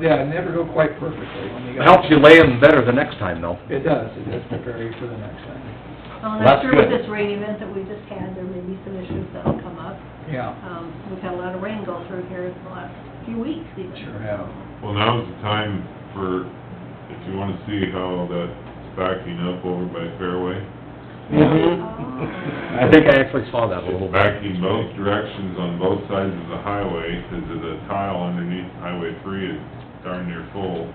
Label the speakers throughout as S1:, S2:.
S1: yeah, never go quite perfectly when you
S2: It
S1: go.
S2: Helps you lay them better the next time though.
S1: It does, it does prepare you for the next time,
S3: Well, and
S2: Well, that's
S3: I'm sure with
S2: good.
S3: this rain event that we just had, there may be some issues that'll come up.
S4: Uh,
S1: yeah.
S3: Um, we've had a lot of rain go through here in the last few weeks even.
S1: Sure have.
S5: Well, now's the time for, if you wanna see how that's backing up over by Fairway,
S3: Mhm.
S2: I think I actually saw that a little bit.
S5: it's backing both directions on both sides of the highway, 'cause of the tile underneath Highway three is darn near full.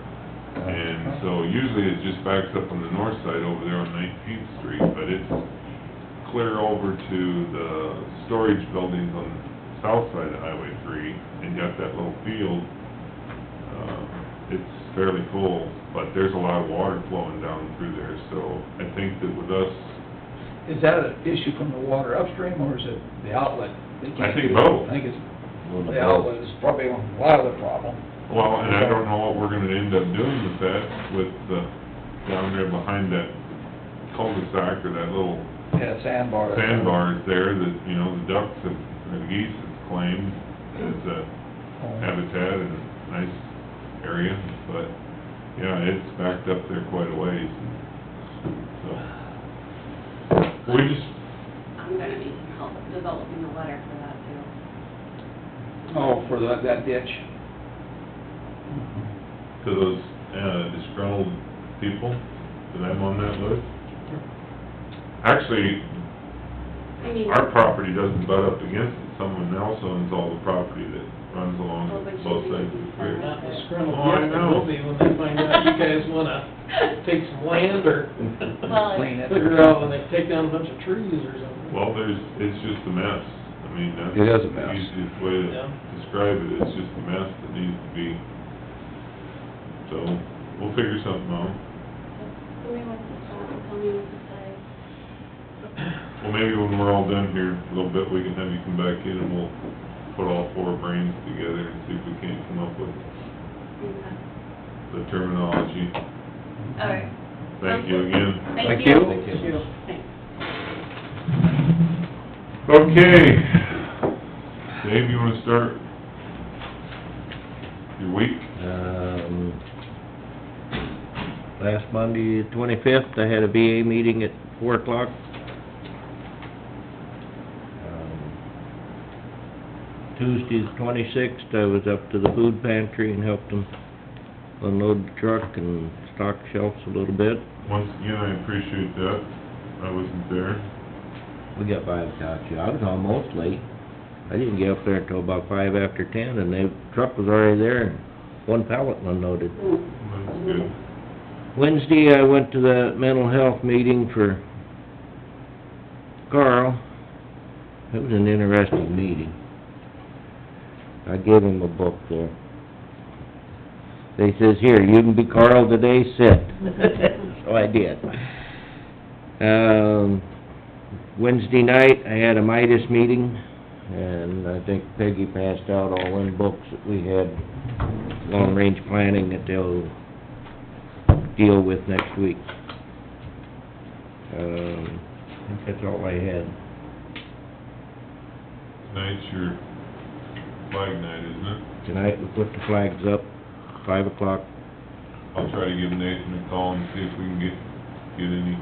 S5: And so usually it just backs up on the north side over there on Nineteenth Street, but it's clear over to the storage buildings on the south side of Highway three, and got that little field. Uh, It's fairly full, but there's a lot of water flowing down through there, so I think that with us,
S1: Is that an issue from the water upstream, or is it the outlet? They can't
S5: I think
S1: do it.
S5: both.
S1: I think it's, the outlet is probably a lot of the problem.
S5: Well, and I don't know what we're gonna end up doing with that, with the, down there behind that cul-de-sac or that little
S1: Yeah, sandbar.
S5: sandbars there that, you know, the ducks and and geese have claimed as a habitat and nice area, but, yeah, it's backed up there quite a ways, so. We just,
S4: I'm gonna need help developing a letter for that too.
S1: Oh, for that, that ditch.
S5: to those, uh, disgruntled people, that I'm on that list. Actually,
S4: I mean,
S5: our property doesn't butt up against it, someone else owns all the property that runs along
S4: Oh, but you
S5: both
S4: need to
S5: sides of the
S4: be
S5: creek.
S4: firm.
S6: Not disgruntled
S5: Oh, I
S6: yet, but
S5: know.
S6: will be when they find out you guys wanna take some land or
S4: Well,
S1: Clean it.
S6: figure out when they take down a bunch of trees or something.
S5: Well, there's, it's just a mess, I mean, that's.
S2: It is a mess.
S5: The easiest way to
S6: Yeah.
S5: describe it, it's just a mess that needs to be, so, we'll figure something out.
S4: Somebody wants to stop and tell me what to say.
S5: Well, maybe when we're all done here, a little bit, we can have you come back in and we'll put all four brains together and see if we can't come up with
S4: Yeah.
S5: the terminology.
S4: All right.
S5: Thank you again.
S2: Thank
S4: Thank
S2: you.
S4: you.
S2: Thank you.
S4: Thanks.
S5: Okay. Dave, you wanna start your week?
S7: Um, last Monday, the twenty-fifth, I had a VA meeting at four o'clock. Um, Tuesday, the twenty-sixth, I was up to the food pantry and helped them unload the truck and stock shelves a little bit.
S5: Once again, I appreciate that. I wasn't there.
S7: We got by without you, I was almost late. I didn't get up there until about five after ten, and the truck was already there, and one pallet unloaded.
S5: That's good.
S7: Wednesday, I went to the mental health meeting for Carl. It was an interesting meeting. I gave him a book there. They says, "Here, you can be Carl today, sit." So I did. Um, Wednesday night, I had a Midas meeting, and I think Peggy passed out all them books that we had, long-range planning that they'll deal with next week. Um, I think that's all I had.
S5: Tonight's your flag night, isn't it?
S7: Tonight, we put the flags up, five o'clock.
S5: I'll try to give Nathan a call and see if we can get, get any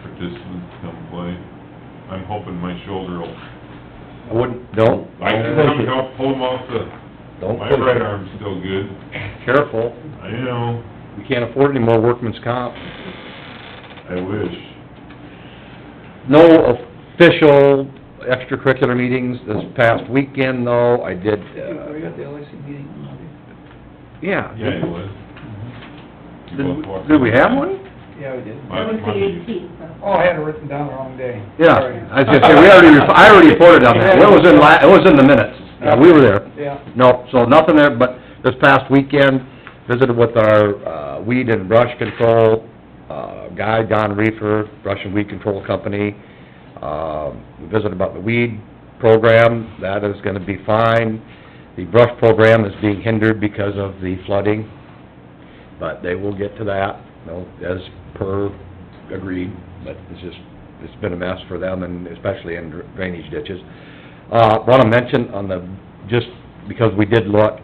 S5: participants to come play. I'm hoping my shoulder will,
S7: I wouldn't, don't,
S5: I can come help pull him off the,
S7: don't
S5: my
S7: push it.
S5: right arm's still good.
S2: Careful,
S5: I know,
S2: we can't afford any more workman's comp.
S5: I wish.
S2: No official extracurricular meetings this past weekend though, I did,
S1: Yeah, we
S2: uh,
S1: got the LAC meeting on Monday.
S2: yeah.
S5: Yeah, it was. You
S2: Mm-hmm. Did
S5: both
S2: we-
S5: walked
S2: Did we
S5: in.
S2: have one?
S1: Yeah, we did.
S5: Last
S4: That was the
S5: Monday.
S4: eighteenth, so.
S1: Oh, I had it written down the wrong day.
S2: Yeah,
S1: Sorry.
S2: I was gonna say, we already, rep- I already reported on that, it was in la, it was in the minutes, yeah, we were there.
S1: Yeah,
S2: No, so nothing there, but this past weekend, visited with our uh, weed and brush control uh, guy, Don Reefer, Brush and Weed Control Company. Um, We Visited about the weed program, that is gonna be fine. The brush program is being hindered because of the flooding, but they will get to that, you know, as per agreed, but it's just, it's been a mess for them, and especially in drainage ditches. Uh, wanna mention on the, just because we did look,